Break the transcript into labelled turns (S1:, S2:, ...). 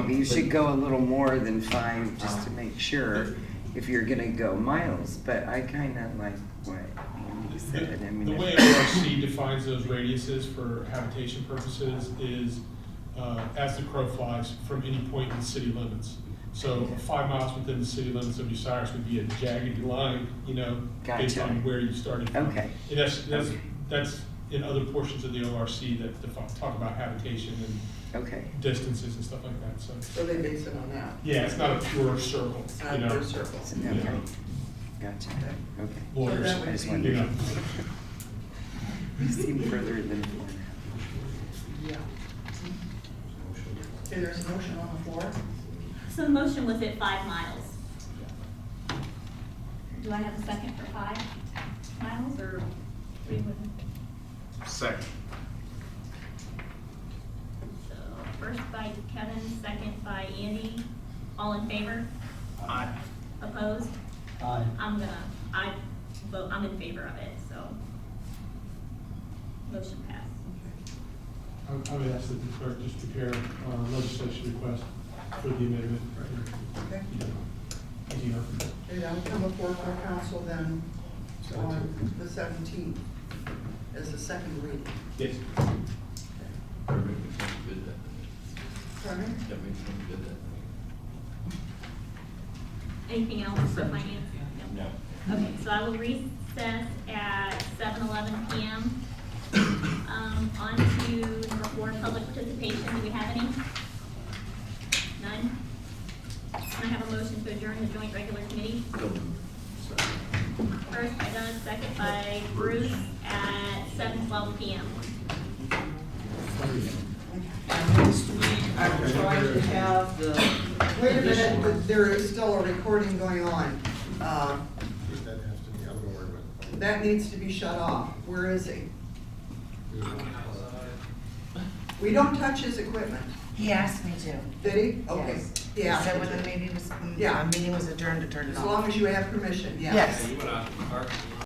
S1: Maybe you should go a little more than five, just to make sure, if you're gonna go miles, but I kinda like what Andy said, I mean.
S2: The way
S1: if-
S2: ORC defines those radiuses for habitation purposes is, uh, as the crow flies from any point in the city limits. So five miles within the city limits of Bucyrus would be a jagged line, you know, based
S1: Gotcha.
S2: on where you started from.
S1: Okay.
S2: And that's, that's,
S1: Okay.
S2: that's in other portions of the ORC that defi- talk about habitation
S1: Okay,
S2: and distances and stuff like that, so.
S3: So they base it on that.
S2: Yeah, it's not a pure circle,
S3: It's
S2: you
S3: not
S2: know.
S3: their circles.
S1: so, okay, gotcha, okay.
S2: Lawyers,
S3: So that
S1: I just
S3: would be-
S2: you know.
S1: wondered. You seem further than four now.
S3: Yeah. Okay, there's a motion on the floor.
S4: So the motion was at five miles. Do I have a second for five miles or three women?
S5: Second.
S4: So first by Kevin, second by Andy. All in favor?
S5: Aye.
S4: Opposed?
S6: Aye.
S4: I'm gonna, I vote, I'm in favor of it, so. Motion passed.
S2: I I would ask that the clerk just prepare uh, legislation request for the amendment.
S3: Okay.
S2: You know, as you know.
S3: Okay, that will come before our council then on the seventeenth as a second reading.
S2: Yes.
S7: That makes me good that,
S3: Pardon?
S7: that makes me good that.
S4: Anything else for finance? No. Okay, so I will recess at seven eleven PM. Um, on to number four, public participation, do we have any? None? Can I have a motion to adjourn the joint regular committee? First by Doug, second by Bruce at seven twelve PM.
S8: Next week, I'm trying to have the.
S3: Wait a minute, th- there is still a recording going on. Uh,
S5: That has to be, I'm gonna worry about it.
S3: That needs to be shut off. Where is he? We don't touch his equipment.
S8: He asked me to.
S3: Did he? Okay.
S8: Yes.
S3: Yeah.
S8: He said when the meeting was,
S3: Yeah.
S8: the meeting was adjourned to turn it
S3: As
S8: off.
S3: long as you have permission, yeah.
S8: Yes.